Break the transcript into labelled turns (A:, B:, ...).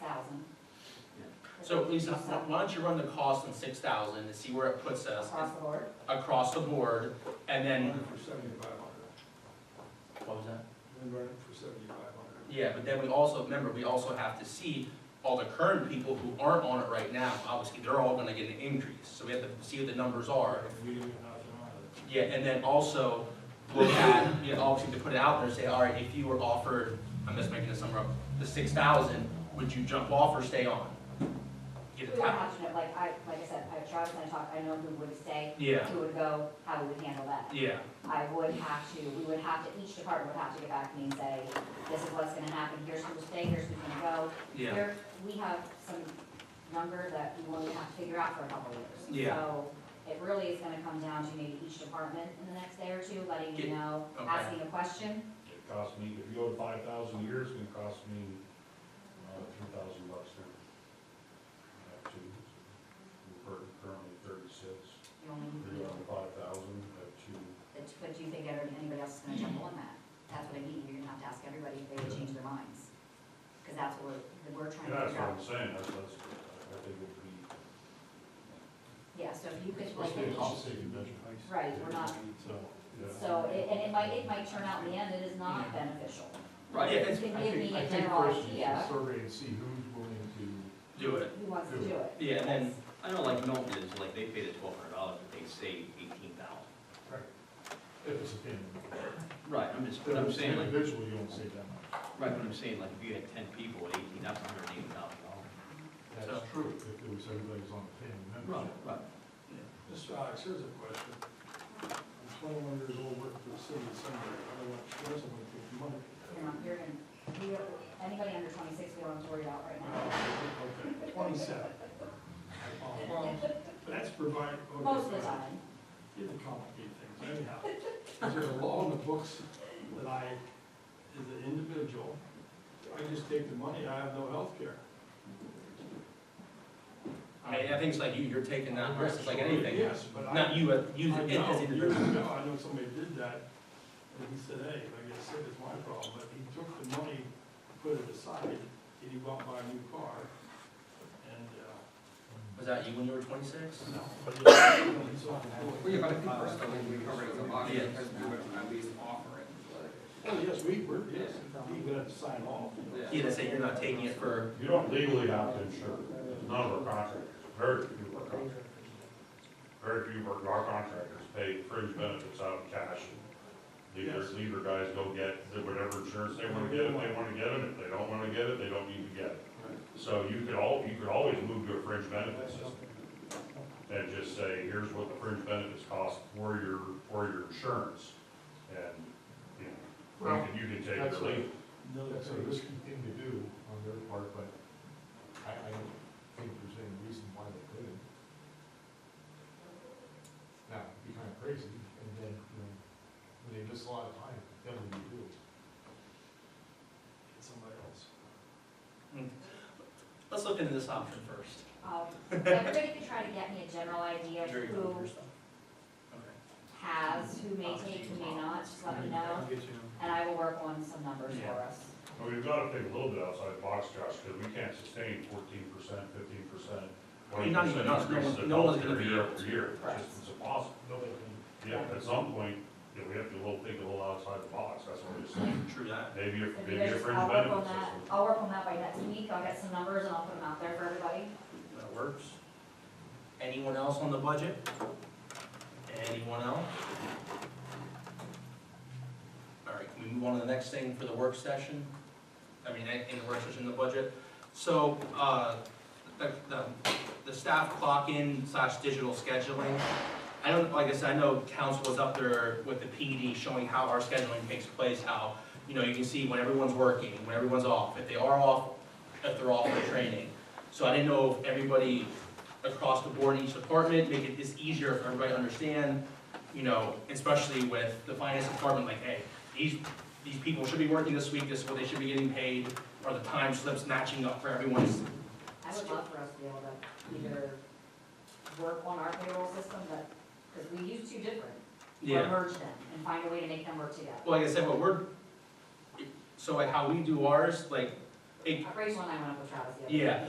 A: thousand.
B: So Lisa, why don't you run the cost on six thousand and see where it puts us
A: Across the board,
B: across the board, and then.
C: Run it for seventy-five hundred,
B: What was that?
C: then run it for seventy-five hundred.
B: Yeah, but then we also, remember, we also have to see all the current people who aren't on it right now, obviously, they're all gonna get an increase, so we have to see what the numbers are.
C: We didn't get nothing out of it.
B: Yeah, and then also look at, you know, obviously to put it out there, say, all right, if you were offered, I'm just making this number up, the six thousand, would you jump off or stay on?
A: we
B: Get a
A: were
B: tap,
A: watching it, like I, like I said, I Travis and I talked, I know who would stay,
B: yeah,
A: who would go, how we would handle that.
B: yeah,
A: I would have to, we would have to, each department would have to get back to me and say, this is what's gonna happen, here's who's staying, here's who's gonna go.
B: yeah,
A: There, we have some number that we will have to figure out for a couple of years.
B: Yeah.
A: So it really is gonna come down to maybe each department in the next day or two, letting you
B: Get-
A: know,
B: okay.
A: asking a question.
D: It costs me, if you go to five thousand a year, it's gonna cost me, uh, three thousand bucks now. Uh, two, we're currently thirty-six,
A: You only,
D: three
A: you know,
D: on five thousand, uh, two.
A: But but do you think ever- anybody else is gonna jump on that? That's what I mean, you're gonna have to ask everybody if they would change their minds. Cause that's what we're, we're trying to
D: And that's
A: figure
D: what
A: out.
D: I'm saying, that's, that's, I think it would be.
A: Yeah, so if you could like,
D: Especially if it's a city budget.
A: right, we're not,
D: So, yeah.
A: so, it- and it might, it might turn out in the end it is not beneficial.
B: right,
A: You
B: yeah, it's-
A: can
C: I
A: give
C: think-
A: me
C: I
A: a
C: think
A: general
C: first you should
A: idea
C: Survey and see who's willing to,
B: do it,
A: who wants to do it.
B: yeah, and then,
E: I know like Milton is, like, they pay the twelve hundred dollars, but they save eighteen thousand.
D: If it's a family.
E: Right, I'm just,
D: If
E: but I'm
D: it's
E: saying like, right,
D: Individually, you won't save that much.
E: but I'm saying like, if you had ten people at eighteen, that's hundred and eighty thousand dollars.
B: So-
D: That's true, if it was everybody's on the family membership.
E: right.
C: Mr. Alex, here's a question. I'm twenty-one years old, working for the city of Sunbury, I don't want to stress, I'm gonna take the money.
A: You're not, you're gonna, you, don't- anybody under twenty-six, we don't have to worry about right now.
C: Okay, Twenty-seven. Oh, well, That's provided. okay,
A: Most of the
C: fine.
A: time,
C: You can complicate things anyhow. Is there a law in the books that I, as an individual, I just take the money, I have no health care?
B: I mean, I think it's like you, you're taking that risk, it's like anything,
C: Yes, but I.
B: not you, uh, you as
C: I know,
B: an
C: years
B: individual.
C: ago, I know somebody did that, and he said, hey, if I get sick, it's my problem, but he took the money, put it aside, and he bought my new car, and, uh,
B: Was that you when you were twenty-six?
C: no, but he- he's on
F: Well, yeah,
C: the
F: but I
C: board.
F: think first of all, we cover the body
B: Yeah.
F: because we would at least offer it.
C: Oh, yes, we were, yes, he would have to sign off.
B: Yeah, they say you're not taking it for,
D: You don't legally have to insure, none of our contractors, very few of our contractors. Very few of our contractors pay fringe benefits out of cash. Leave their,
C: Yes.
D: leave their guys go get the- whatever insurance they wanna get, if they wanna get it, if they don't wanna get it, they don't need to get it. So you could al, you could always move to a fringe benefit system. And just say, here's what the fringe benefits cost for your, for your insurance, and, you know, you can, you can take it
G: That's
D: or leave it.
C: No,
G: That's a risky thing to do on their part, but I, I don't think there's any reason why they couldn't. Now, it'd be kind of crazy, and then, you know, when they miss a lot of time, then what do you do?
C: Somebody else.
B: let's look into this option first.
A: um, everybody could try to get me a general idea of
B: Jerry, you go
A: who
B: first, though. Okay.
A: has, who may take, who may not, just let me know. And I will work on some numbers for
B: Yeah.
A: us.
D: Well, we've got to think a little bit outside the box, Josh, because we can't sustain fourteen percent, fifteen percent,
B: Well, you're
D: twenty
B: not even
D: percent
B: us. No
D: increases
B: one-
D: in
B: no one's gonna
D: health care
B: be
D: year
B: able
D: after
B: to.
D: year.
B: Right.
D: It's just it's impossible. Yeah, at some point, you know, we have to little, think a little outside the box, that's what I'm saying.
B: True that.
D: Maybe a,
A: If you
D: maybe a
A: guys,
D: fringe
A: I'll work on
D: benefit
A: that,
D: system.
A: I'll work on that by next week, I'll get some numbers and I'll put them out there for everybody.
B: That works. Anyone else on the budget? Anyone else? All right, can we move on to the next thing for the work session? I mean, in in the work session, the budget. So, uh, the, the, the staff clock-in slash digital scheduling. I don't, like I said, I know council was up there with the PD showing how our scheduling takes place, how, you know, you can see when everyone's working, when everyone's off, if they are off, if they're off for training. So I didn't know if everybody across the board in each department, make it this easier for everybody to understand, you know, especially with the finance department, like, hey, these, these people should be working this week, this is what they should be getting paid, are the time slips matching up for everyone's?
A: I would love for us to be able to either work on our payroll system, but, because we use two different, or merge them and find a way to make them work together.
B: Well, like I said, what we're, so like how we do ours, like, It-
A: Rachel and I went up with Travis the other day.
B: yeah,